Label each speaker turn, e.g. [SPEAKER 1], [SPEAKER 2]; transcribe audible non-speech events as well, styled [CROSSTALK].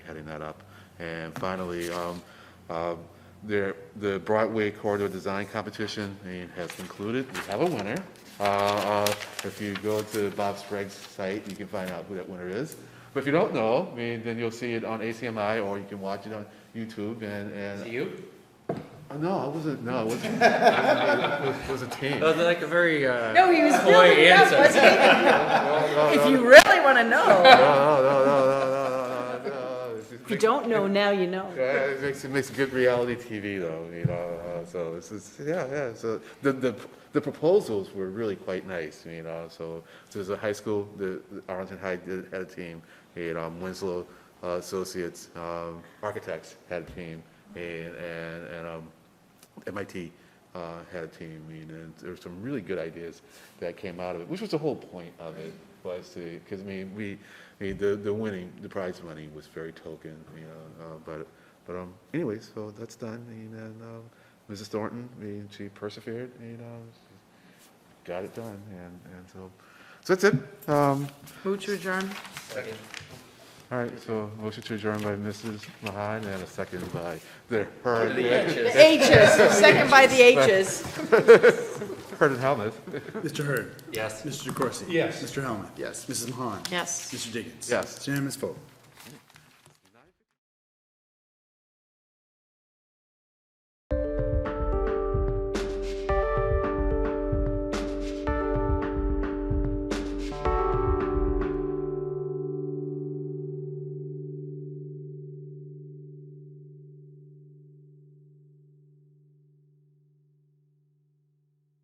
[SPEAKER 1] heading that up. And finally, um, um, there, the Broadway Corridor Design Competition eh, has concluded. We have a winner. Uh, uh, If you go to Bob Sprague's site, you can find out who that winner is. But if you don't know, I mean, then you'll see it on ACMI, or you can watch it on YouTube and,
[SPEAKER 2] To
[SPEAKER 1] and,
[SPEAKER 2] you?
[SPEAKER 1] Oh, no, I wasn't, no, I wasn't. It was- it was a team.
[SPEAKER 2] That was Oh, like a very,
[SPEAKER 3] [LAUGHS]
[SPEAKER 2] uh.
[SPEAKER 3] No, he was
[SPEAKER 2] coy
[SPEAKER 3] building it up,
[SPEAKER 2] answer.
[SPEAKER 3] wasn't [LAUGHS] he? If you really want to know,
[SPEAKER 1] No, no, no, no, no, no, no, no. It's just-
[SPEAKER 3] if you don't know now, you know.
[SPEAKER 1] Yeah, it makes it makes good reality TV though, you know. Uh, so it's, it's yeah, yeah. So the, the the proposals were really quite nice, you know. So there's a high school, the the Arlington High did, had a team, and um, Winslow uh, Associates um, Architects had a team, and and and um, MIT uh, had a team, I mean, and there were some really good ideas that came out of it, which was the whole point of it, was to, because I mean, we, I mean, the, the winning, the prize money was very token, you know, uh, but, but um, anyways, so that's done, and then um, Mrs. Thornton, I mean, she persevered, you know, she got it done, and, and so, so that's it. Um,
[SPEAKER 3] Move to adjourn.
[SPEAKER 1] All right, so motion to adjourn by Mrs. Mahan and a second by the Heard,
[SPEAKER 3] The H's, second by the H's.
[SPEAKER 1] Heard and Helmuth.
[SPEAKER 4] Mr. Hurd.
[SPEAKER 2] Yes.
[SPEAKER 4] Mr. DeCoursey. Yes. Mr. Helmuth. Yes. Mrs. Mahan.
[SPEAKER 3] Yes.
[SPEAKER 4] Mr. Diggins.
[SPEAKER 1] Yes.
[SPEAKER 4] It's unanimous vote.